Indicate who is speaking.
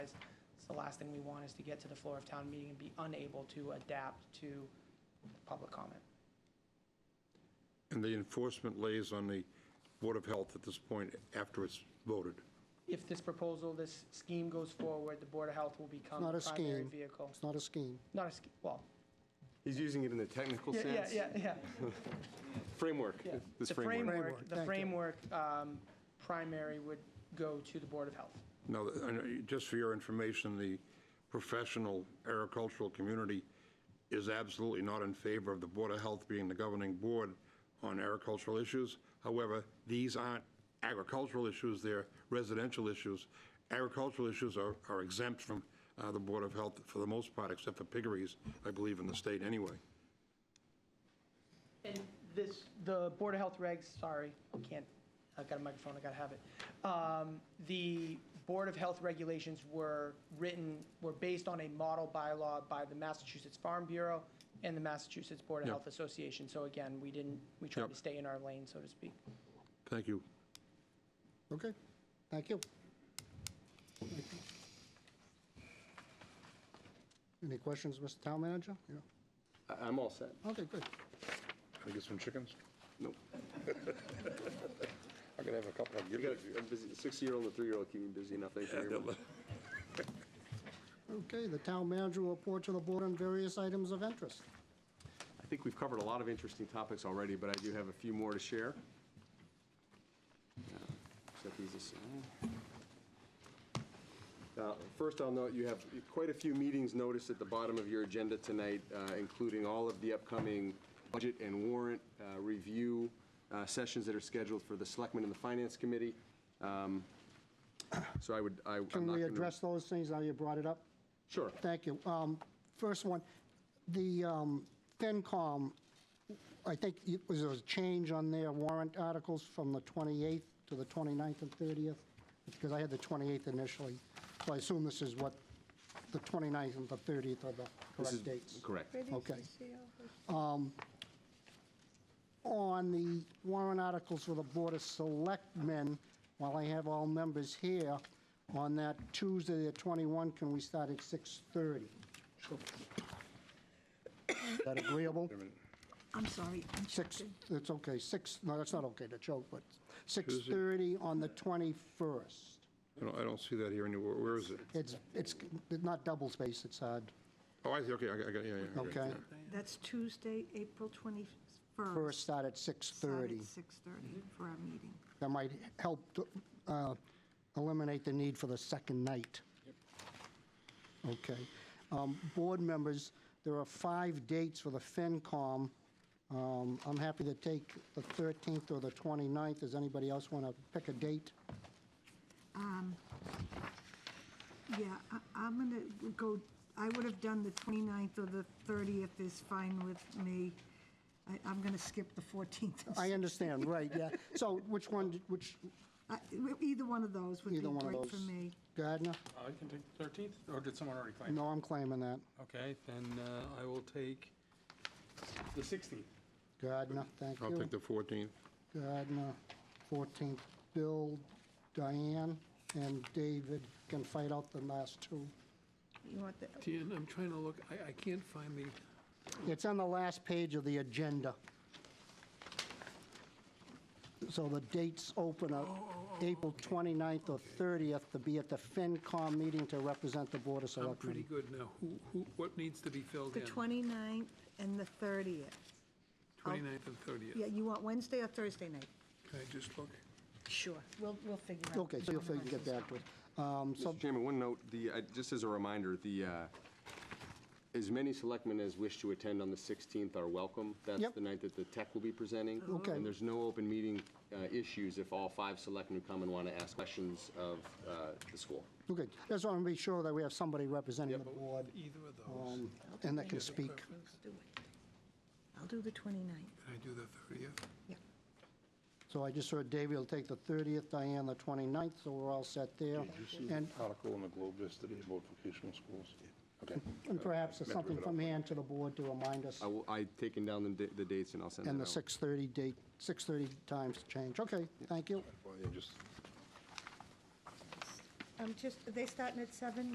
Speaker 1: the last thing we want is to get to the floor of town meeting and be unable to adapt to public comment.
Speaker 2: And the enforcement lays on the Board of Health at this point after it's voted.
Speaker 1: If this proposal, this scheme goes forward, the Board of Health will become
Speaker 3: not
Speaker 1: the
Speaker 3: a
Speaker 1: primary
Speaker 3: scheme.
Speaker 1: vehicle.
Speaker 3: It's not a scheme.
Speaker 1: Not a scheme, well,
Speaker 4: He's using it in the technical
Speaker 1: yeah, yeah,
Speaker 4: sense.
Speaker 1: yeah, yeah.
Speaker 4: Framework,
Speaker 1: Yeah.
Speaker 4: this
Speaker 1: The
Speaker 4: framework.
Speaker 1: framework, the
Speaker 3: Framework,
Speaker 1: framework um, primary would go to the Board of Health.
Speaker 2: Now, I know- just for your information, the professional agricultural community is absolutely not in favor of the Board of Health being the governing board on agricultural issues. However, these aren't agricultural issues, they're residential issues. Agricultural issues are are exempt from uh, the Board of Health for the most part, except for piggeries, I believe, in the state anyway.
Speaker 1: And this, the Board of Health regs, sorry, I can't, I've got a microphone, I gotta have it. Um, The Board of Health regulations were written, were based on a model bylaw by the Massachusetts Farm Bureau and the Massachusetts Board of
Speaker 2: Yep.
Speaker 1: Health Association. So again, we didn't, we tried to
Speaker 2: Yep.
Speaker 1: stay in our lane, so to speak.
Speaker 2: Thank you.
Speaker 3: Okay, thank you. Any questions, Mr. Town Manager? Yeah.
Speaker 4: I- I'm all set.
Speaker 3: Okay, good.
Speaker 2: Can I get some chickens?
Speaker 4: Nope.
Speaker 2: I could have a couple of
Speaker 4: You got a a busy, six-year-old and a three-year-old keep me busy enough. Thank you very much.
Speaker 3: Okay, the Town Manager will report to the board on various items of interest.
Speaker 4: I think we've covered a lot of interesting topics already, but I do have a few more to share. Set these aside. Uh, First, I'll note you have quite a few meetings noticed at the bottom of your agenda tonight, uh, including all of the upcoming budget and warrant uh, review uh, sessions that are scheduled for the Selectmen and the Finance Committee. Um, So I would, I- I'm not
Speaker 3: Can we
Speaker 4: gonna-
Speaker 3: address those things now you brought it up?
Speaker 4: Sure.
Speaker 3: Thank you. Um, First one, the um, FinCom, I think it was a change on their warrant articles from the 28th to the 29th and 30th, because I had the 28th initially, so I assume this is what, the 29th and the 30th are the
Speaker 4: This is-
Speaker 3: correct dates.
Speaker 4: Correct.
Speaker 3: Okay. On the warrant articles for the Board of Selectmen, while I have all members here, on that Tuesday, the 21, can we start at 6:30? Is that agreeable?
Speaker 5: I'm sorry. I'm
Speaker 3: Six,
Speaker 5: joking.
Speaker 3: it's okay, six, no, that's not okay to choke, but 6:30 on the 21st.
Speaker 2: I don't, I don't see that here anywhere. Where is it?
Speaker 3: It's, it's not double space, it's hard,
Speaker 2: Oh, I see, okay, I I got, yeah, yeah.
Speaker 3: okay?
Speaker 5: That's Tuesday, April 21st.
Speaker 3: First start at
Speaker 5: Start at
Speaker 3: 6:30.
Speaker 5: 6:30 for our meeting.
Speaker 3: That might help uh, eliminate the need for the second night. Okay. Um, Board members, there are five dates for the FinCom. Um, I'm happy to take the 13th or the 29th. Does anybody else want to pick a date?
Speaker 5: Yeah, I- I'm going to go, I would have done the 29th or the 30th is fine with me. I- I'm going to skip the 14th. and
Speaker 3: I understand, right, yeah. So which one, did- which,
Speaker 5: s- I- Either one of those would be
Speaker 3: either one of
Speaker 5: great
Speaker 3: those?
Speaker 5: for me.
Speaker 3: Gardner?
Speaker 6: I can take the 13th, or did someone already claim? it?
Speaker 3: No, I'm claiming that.
Speaker 6: Okay, then uh, I will take the 16th.
Speaker 3: Gardner, thank you.
Speaker 2: I'll take the 14th.
Speaker 3: Gardner, 14th, Bill, Diane, and David can fight out the last two.
Speaker 5: You want the,
Speaker 7: Dan, I'm trying to look, I, I can't find the,
Speaker 3: It's on the last page of the agenda. So the dates open up April 29th or 30th to be at the FinCom meeting to represent the Board of
Speaker 7: I'm
Speaker 3: Selectmen.
Speaker 7: pretty good now. Who, who, what needs to be filled
Speaker 5: the
Speaker 7: in?
Speaker 5: 29th and the 30th.
Speaker 7: 29th and
Speaker 5: oh. Yeah,
Speaker 7: 30th.
Speaker 5: you want Wednesday or Thursday night?
Speaker 7: Can I just look?
Speaker 5: Sure, we'll, we'll figure out.
Speaker 3: Okay, so you'll figure- get back to it. Um, So
Speaker 4: Mr. Chairman, one note, the, I- just as a reminder, the, uh, as many selectmen as wish to attend on the 16th are welcome. That's
Speaker 3: Yep.
Speaker 4: the night that the tech will be presenting.
Speaker 3: Okay.
Speaker 4: And there's no open meeting uh, issues if all five selectmen who come and want to ask questions of uh, the school.
Speaker 3: Okay, just want to be sure that we have somebody representing the board
Speaker 7: Either of those.
Speaker 3: um, and that can
Speaker 7: Do you have a
Speaker 3: speak.
Speaker 7: preference?
Speaker 5: Do it. I'll do the 29th,
Speaker 7: Can I do the 30th?
Speaker 5: yeah.
Speaker 3: So I just heard David will take the 30th, Diane the 29th, so we're all set there. And
Speaker 2: article in the Globe yesterday about vocational schools? Okay.
Speaker 3: and perhaps there's something from hand to the board to remind us,
Speaker 4: I will, I taken down the da- the dates and I'll send that out.
Speaker 3: and the 6:30 date, 6:30 times change. Okay, thank you.
Speaker 2: Well, yeah, just
Speaker 5: I'm just, are Um, they starting at seven?